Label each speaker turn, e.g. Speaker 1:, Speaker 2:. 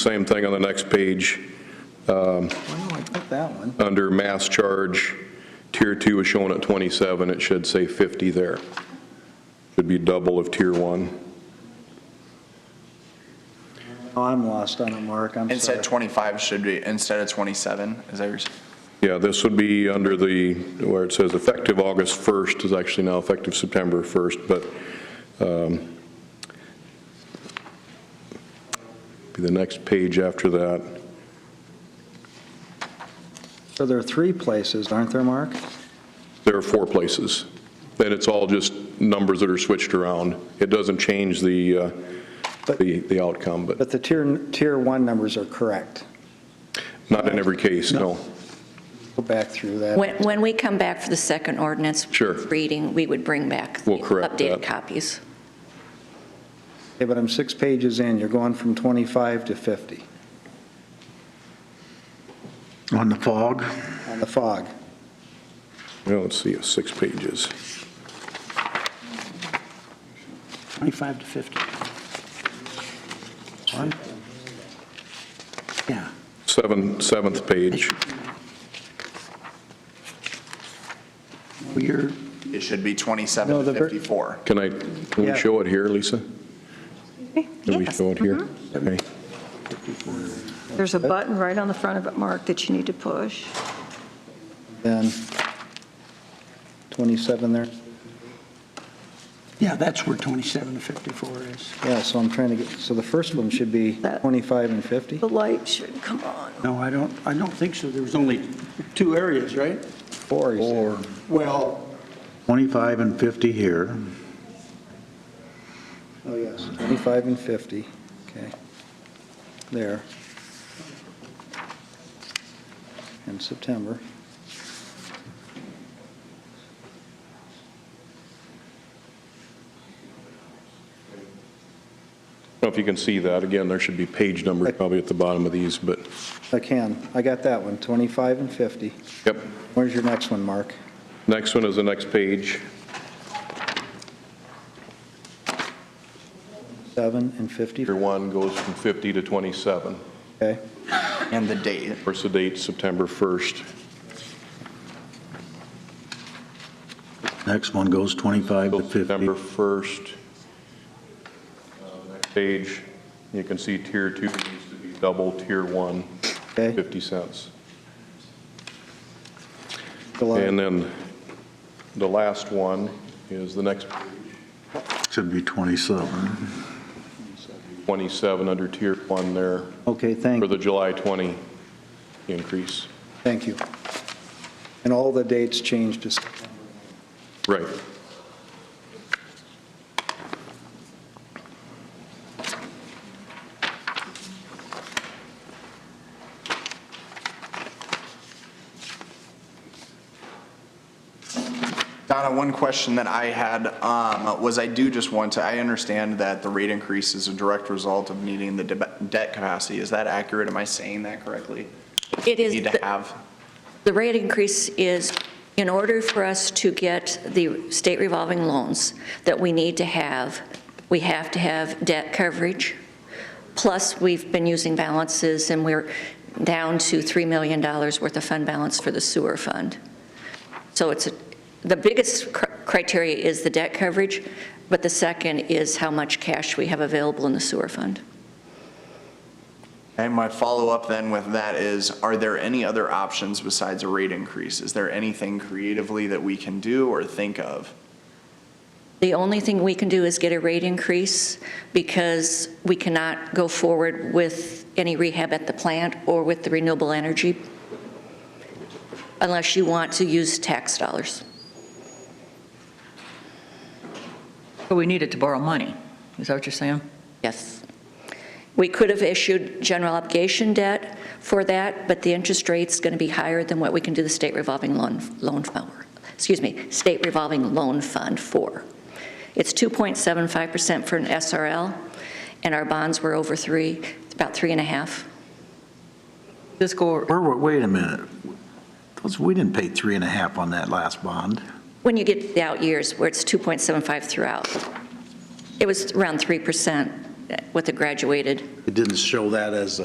Speaker 1: Same thing on the next page,
Speaker 2: Why don't I put that one?
Speaker 1: under mass charge, tier two is shown at 27, it should say 50 there. Should be double of tier one.
Speaker 2: Oh, I'm lost on it, Mark, I'm sorry.
Speaker 3: Instead 25 should be, instead of 27, is that your,
Speaker 1: Yeah, this would be under the, where it says effective August 1st is actually now effective September 1st, but um, be the next page after that.
Speaker 2: So there are three places, aren't there, Mark?
Speaker 1: There are four places. Then it's all just numbers that are switched around. It doesn't change the, uh,
Speaker 2: But-
Speaker 1: the the outcome, but
Speaker 2: But the tier, tier one numbers are correct.
Speaker 1: not in every case, no.
Speaker 2: Go back through that.
Speaker 4: When, when we come back for the second ordinance.
Speaker 1: Sure.
Speaker 4: Reading, we would bring back.
Speaker 1: We'll
Speaker 4: the
Speaker 1: correct that.
Speaker 4: Updated copies.
Speaker 2: Okay, but I'm six pages in, you're going from 25 to 50
Speaker 5: On the fog?
Speaker 2: on the fog.
Speaker 1: Well, let's see, it's six pages.
Speaker 5: 25 to 50. One? Yeah.
Speaker 1: Seven, seventh page.
Speaker 5: Well, You're,
Speaker 3: it should be
Speaker 2: No,
Speaker 3: 27
Speaker 2: the
Speaker 3: to
Speaker 2: ver-
Speaker 3: 54.
Speaker 1: Can I, can
Speaker 2: Yeah.
Speaker 1: we show it here, Lisa? Can we
Speaker 6: Yes.
Speaker 1: show it here? Okay.
Speaker 6: There's a button right on the front of it, Mark, that you need to push.
Speaker 2: Then 27 there?
Speaker 5: yeah, that's where 27 to 54 is.
Speaker 2: Yeah, so I'm trying to get, so the first one should be
Speaker 6: That-
Speaker 2: 25 and 50?
Speaker 6: The light should come on.
Speaker 5: No, I don't, I don't think so. There was only two areas, right?
Speaker 2: Four, you said.
Speaker 5: Well.
Speaker 7: 25 and 50 here,
Speaker 2: Oh, yes, 25 and 50, okay. There. In September.
Speaker 1: Now, if you can see that, again, there should be page numbers probably at the bottom of these, but,
Speaker 2: I can, I got that one, 25 and 50.
Speaker 1: yep.
Speaker 2: Where's your next one, Mark?
Speaker 1: Next one is the next page,
Speaker 2: Seven and 50,
Speaker 1: tier one goes from 50 to 27. Of
Speaker 2: okay?
Speaker 3: And the date.
Speaker 1: course, the date, September 1st.
Speaker 7: next one goes 25 to
Speaker 1: Till
Speaker 7: 50.
Speaker 1: September 1st. Uh, Next page, you can see tier two needs to be double tier one,
Speaker 2: Okay.
Speaker 1: 50 cents. And
Speaker 2: July,
Speaker 1: then the last one is the next
Speaker 7: Should be 27.
Speaker 1: 27 under tier one there
Speaker 2: okay,
Speaker 1: for
Speaker 2: thank,
Speaker 1: the July 20 increase.
Speaker 2: thank you. And all the dates changed to
Speaker 1: Right.
Speaker 3: Donna, one question that I had um, was I do just want to, I understand that the rate increase is a direct result of needing the deb- debt capacity. Is that accurate? Am I saying that correctly?
Speaker 4: It is,
Speaker 3: Need to
Speaker 4: the-
Speaker 3: have,
Speaker 4: the rate increase is, in order for us to get the state revolving loans that we need to have, we have to have debt coverage. Plus, we've been using balances and we're down to $3 million worth of fund balance for the sewer fund. So it's, a- the biggest cr- criteria is the debt coverage, but the second is how much cash we have available in the sewer fund.
Speaker 3: and my follow-up then with that is, are there any other options besides a rate increase? Is there anything creatively that we can do or think of?
Speaker 4: The only thing we can do is get a rate increase because we cannot go forward with any rehab at the plant or with the renewable energy unless you want to use tax dollars.
Speaker 8: But we needed to borrow money, is that what you're saying?
Speaker 4: Yes. We could have issued general obligation debt for that, but the interest rate's going to be higher than what we can do the state revolving loan, loan fund, excuse me, state revolving loan fund for. It's 2.75% for an SRL, and our bonds were over three, about three and a half.
Speaker 8: This go,
Speaker 7: Where, were- wait a minute. Those- We didn't pay three and a half on that last bond.
Speaker 4: When you get to the out years, where it's 2.75 throughout, it was around 3% with the graduated.
Speaker 7: It didn't show that as a